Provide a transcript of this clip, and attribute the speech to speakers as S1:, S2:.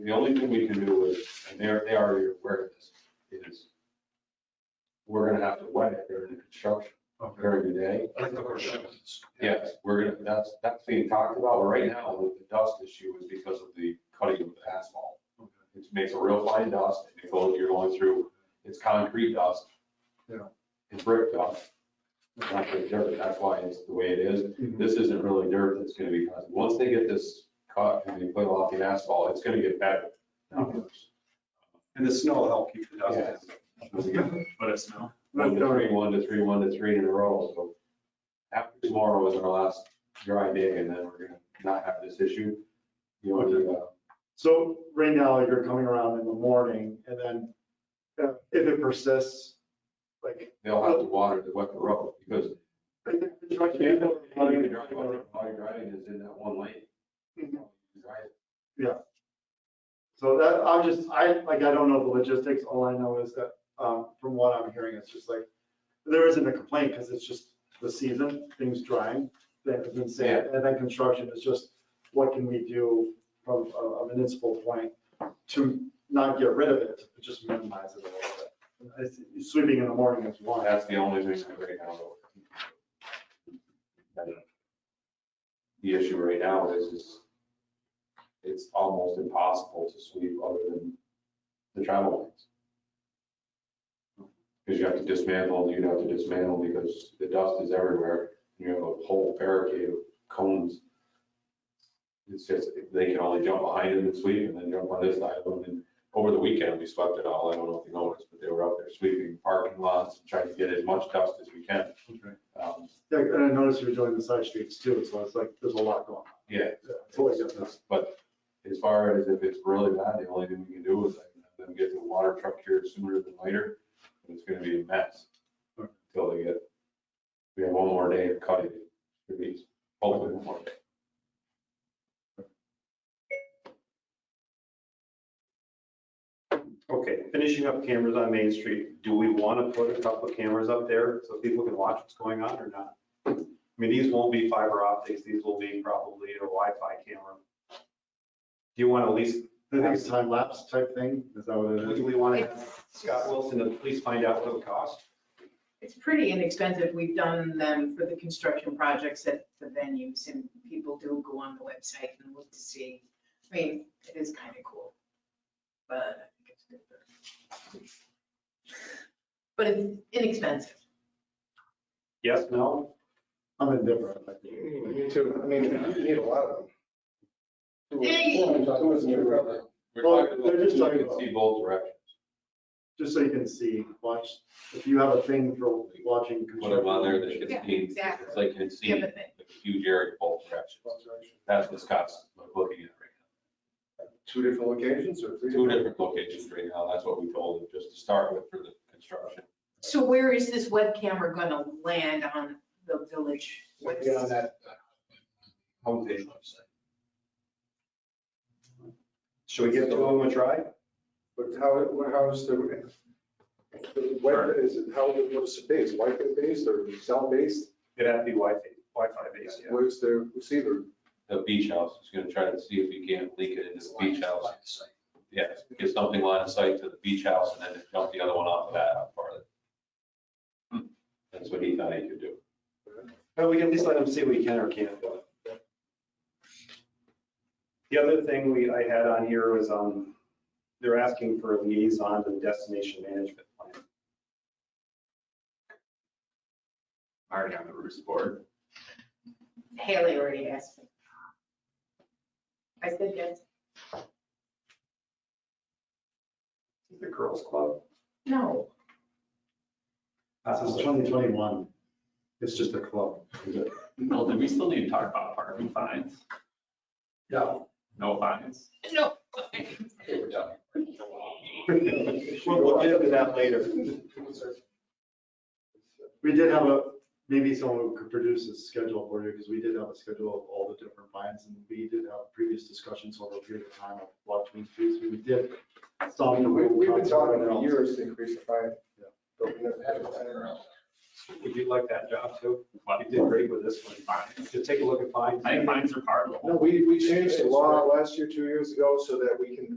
S1: the only thing we can do is, and they're, they are aware of this, is we're gonna have to wet it during the construction, during the day.
S2: Like the questions.
S1: Yes, we're gonna, that's, that's being talked about, but right now, with the dust issue is because of the cutting of the asphalt. It makes a real fine dust, and it goes, you're going through, it's concrete dust.
S2: Yeah.
S1: It's brick dust. It's Not really dirt, that's why it's the way it is. This isn't really dirt that's gonna be, caused. once they get this cut and they put it off the asphalt, it's gonna get better. not worse.
S3: And the snow will help keep the dust
S1: Yeah.
S3: down. But it's snow.
S1: One to three, one to three, one to three in a row, so. After tomorrow is our last dry day, and then we're gonna not have this issue. You know, the, uh,
S2: So right now, you're coming around in the morning and then uh, if it persists, like.
S1: they'll have to water the wet the road, because
S2: I think the
S1: While
S2: truck-
S1: you're driving is in that one lane.
S2: Mhm.
S1: Right.
S2: So that, I'm just, I, like, I don't know the logistics. All I know is that, um, from what I'm hearing, it's just like, there isn't a complaint because it's just the season, things drying, that has been said. And then construction is just, what can we do from a a municipal point to not get rid of it, but just minimize it a little bit? It's- Sweeping in the morning is one.
S1: That's the only thing that right now. though. The issue right now is, is it's almost impossible to sweep other than the travel lanes. Because you have to dismantle, you'd have to dismantle because the dust is everywhere. You have a whole barricade of cones. It's just, they can only jump behind it and sweep and then jump on this side of them. And over the weekend, we swept it all. I don't know if you noticed, but they were out there sweeping parking lots and trying to get as much dust as we can. Um,
S2: Yeah, And I noticed you were doing the side streets too, so it's like, there's a lot going on.
S1: Yeah,
S2: Yeah, It's always got this.
S1: But as far as if it's really bad, the only thing we can do is like, have them get the water truck here sooner than later. and It's gonna be a mess until they get, we have one more day of cutting. Should be hopefully one more day.
S3: Okay, finishing up cameras on Main Street. Do we want to put a couple of cameras up there so people can watch what's going on or not? I mean, these won't be fiber optics. These will be probably a Wi-Fi camera. Do you want to at least,
S2: I think it's time lapse type thing, is that what it is?
S3: do we want to have Scott Wilson to please find out what it costs?
S4: It's pretty inexpensive. We've done them for the construction projects at the venues and people do go on the website and look to see. I mean, it is kind of cool. But I think it's good. for- But it's inexpensive.
S3: Yes, no?
S2: I'm indifferent. I think.
S5: Me too. I mean, you need a lot of them.
S4: Hey.
S5: Two is near rubber.
S1: We're
S2: Well,
S1: talking about-
S2: they're just talking
S1: you can
S2: about-
S1: See both directions.
S2: Just so you can see, watch, if you have a thing for watching.
S1: Put them on there that you
S4: Yeah,
S1: can see.
S4: exactly.
S1: It's like you can see
S4: Yeah,
S1: the
S4: but they-
S1: huge area both directions. That's what Scott's looking at right now.
S5: Two different locations or three?
S1: two different locations right now, that's what we told them, just to start with for the construction.
S4: So where is this web camera going to land on the village?
S5: Get on that uh, homepage website.
S3: Should we give two of them a try?
S5: But how, it- what- how is the, the web, is it, how, what's it based? Wi-Fi based or cell based?
S3: It'd have to be Wi-Fi, Wi-Fi based, yeah.
S5: Where's their receiver?
S1: The beach house, is gonna try to see if we can't leak it into the beach house. Yeah, get something line of sight to the beach house and then jump the other one off of that out farther. That's what he thought he could do.
S3: Well, we can at least let them see what we can or can't do. The other thing we, I had on here was, um, they're asking for a liaison to the destination management plan.
S6: already on the Roost board.
S4: Haley already asked me. I said yes.
S3: The girls club.
S4: No.
S2: This is
S3: Uh,
S2: 2021. It's just a club.
S6: Well, do we still need to talk about parking fines?
S2: Yeah.
S6: No fines?
S4: No.
S6: Okay, we're done.
S3: We'll get to that later.
S2: We did have a, maybe someone could produce a schedule for you, because we did have a schedule of all the different lines, and we did have previous discussions over a period of time of what we fees. We did
S5: I
S2: some.
S5: mean, we- We've been talking for years to increase the fine.
S2: Yeah.
S5: But we never had it.
S3: Would you like that job too?
S6: What?
S3: You did great with this one.
S6: Fines.
S3: Just take a look at fines.
S6: I think fines are part of the whole.
S5: No, we, we changed the law last year, two years ago, so that we can